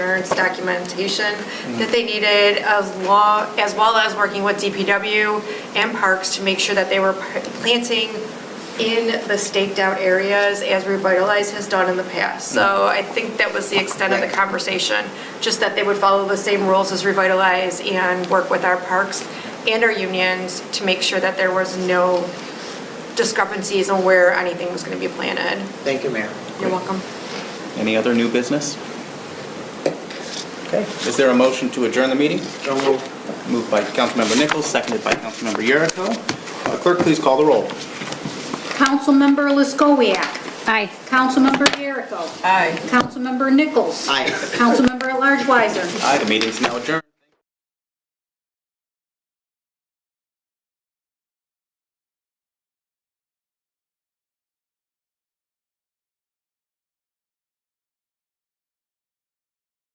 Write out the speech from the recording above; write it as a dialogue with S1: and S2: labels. S1: insurance documentation that they needed, as law, as well as working with DPW and parks to make sure that they were p- planting in the staked-out areas as Revitalize has done in the past. So I think that was the extent of the
S2: Right.
S1: conversation, just that they would follow the same rules as Revitalize and work with our parks and our unions to make sure that there was no discrepancies on where anything was going to be planted.
S2: Thank you, Mayor.
S1: You're welcome.
S3: Any other new business? Okay, is there a motion to adjourn the meeting?
S2: So move.
S3: Moved by Councilmember Nichols, seconded by Councilmember Yeruko. Uh, Clerk, please call the roll.
S4: Councilmember Liskowiak.
S5: Aye.
S4: Councilmember Yeruko.
S1: Aye.
S4: Councilmember Nichols.
S2: Aye.
S4: Councilmember at large Weiser.
S3: Aye, the meeting's now adjourned.